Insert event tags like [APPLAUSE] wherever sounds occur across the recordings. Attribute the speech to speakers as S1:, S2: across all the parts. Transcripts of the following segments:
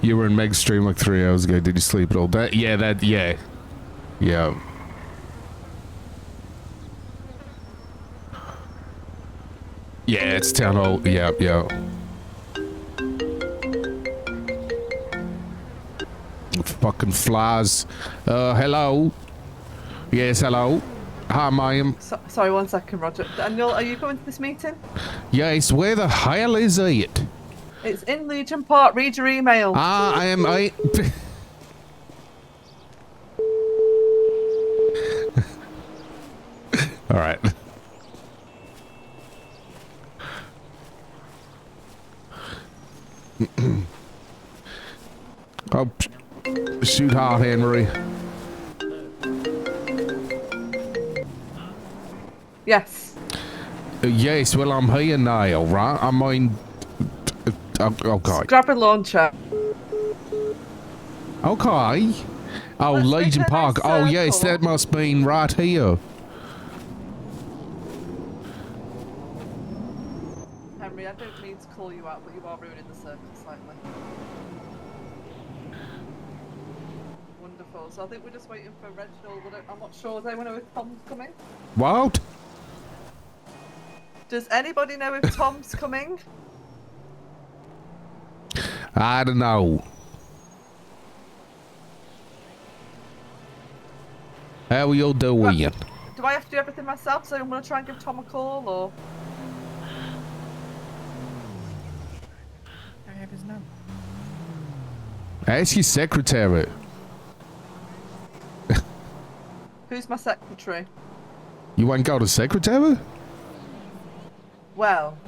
S1: You were in Meg's stream like three hours ago. Did you sleep at all? That yeah, that yeah, yeah. Yeah, it's town hall. Yeah, yeah. Fucking flies. Uh, hello. Yes, hello. Hi, ma'am.
S2: So, sorry, one second, Roger. Daniel, are you coming to this meeting?
S1: Yes, where the hell is it?
S2: It's in Legion Park. Read your email.
S1: Ah, I am. I. [LAUGHS] All right. [CLEARS THROAT] oh, psh- shoot hard, Henry. Uh,
S2: yes.
S1: Uh, Yes, well, I'm here now, right? I mean, t- t- okay.
S2: Grab a launcher.
S1: Okay. Oh,
S2: Let's make
S1: Legion
S2: a nice
S1: Park. Oh, yes,
S2: circle.
S1: that must mean right here.
S2: Henry, I don't mean to call you out, but you are ruining the circle slightly. Wonderful. So I think we're just waiting for Reginald. I don't- I'm not sure. Does anyone know if Tom's coming?
S1: What?
S2: Does anybody know if Tom's coming?
S1: I don't know. How are you doing?
S2: Do I have to do everything myself? So I'm going to try and give Tom a call, or
S3: I have his number.
S1: Ask your secretary.
S2: who's my secretary?
S1: You ain't got a secretary?
S2: Well,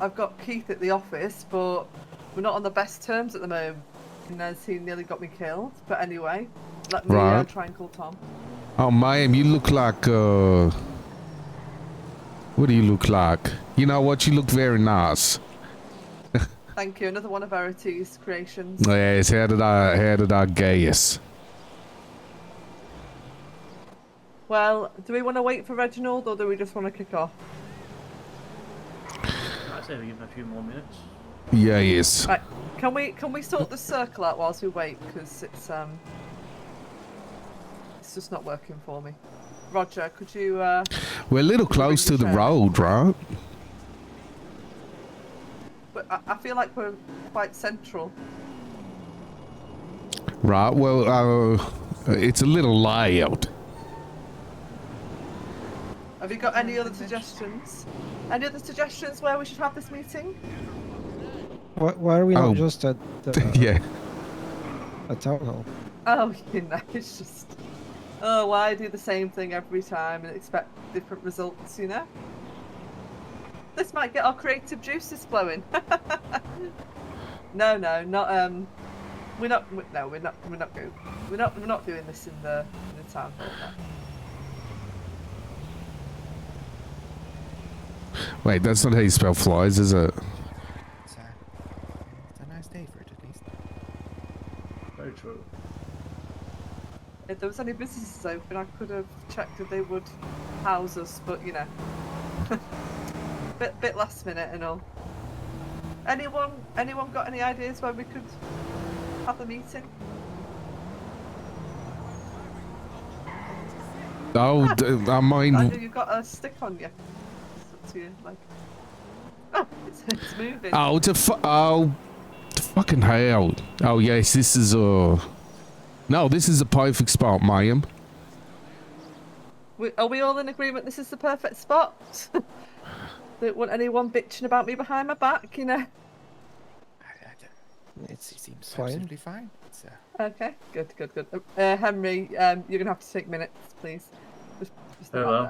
S2: I've got Keith at the office, but we're not on the best terms at the moment. And as he nearly got me killed. But anyway, let me uh,
S1: Right.
S2: try and call Tom.
S1: Oh, ma'am, you look like, uh... What do you look like? You know what? You look very nice.
S2: Thank you. Another one of Verity's creations.
S1: Yes, how did I, how did I guess?
S2: Well, do we want to wait for Reginald or do we just want to kick off?
S4: I'd say we give him a few more minutes.
S1: Yes.
S2: Right. Can we can we sort the circle out whilst we wait? Because it's um it's just not working for me. Roger, could you uh
S1: We're a little close to the road, right?
S2: but I, I feel like we're quite central.
S1: Right, well, uh... It's a little loud.
S2: Have you got any other suggestions? Any other suggestions where we should have this meeting?
S5: Why, why are we
S1: Oh.
S5: not just at
S1: [LAUGHS]
S5: the,
S1: [LAUGHS] yeah.
S5: a town hall?
S2: Oh, [LAUGHS] you know, it's just. Oh, why do the same thing every time and expect different results, you know? This might get our creative juices flowing. [LAUGHS] no, no, not um, we're not. we- No, we're not. We're not going. We're not. We're not doing this in the in the town hall. no.
S1: Wait, that's not how you spell flies, is it?
S3: It's a, it's a nice day for it, at least.
S4: Very true.
S2: If there was any businesses open, I could have checked if they would house us, but you know, [LAUGHS] bit bit last minute and all. Anyone anyone got any ideas where we could have a meeting?
S1: Oh, d- I
S2: I
S1: mean,
S2: know you've got a stick on you. It's up to you, like. Oh, it's, it's moving.
S1: oh, to fu- oh, to fucking hell. Oh yes, this is a. No, this is a perfect spot, ma'am.
S2: We, are we all in agreement? This is the perfect spot. [LAUGHS] Don't want anyone bitching about me behind my back, you know.
S3: I, I, don't- it's, it seems
S5: Fine.
S3: absolutely fine. It's, uh,
S2: Okay, good, good, good. Uh, Henry, um, you're gonna have to take minutes, please. Just, just
S4: Very
S2: about
S4: well.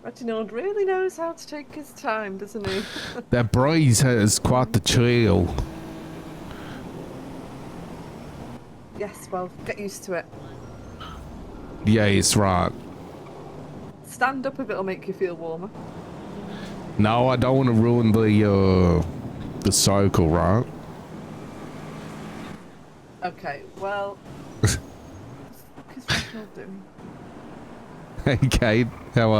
S2: there. Reginald really knows how to take his time, doesn't he? [LAUGHS]
S1: That breeze has quite the chill.
S2: yes, well, get used to it.
S1: Yes, right.
S2: Stand up if it'll make you feel warmer.
S1: No, I don't want to ruin the uh, the circle, right? [LAUGHS]
S2: Okay, well. what the fuck is Reginald doing?
S1: Hey, Kate, how are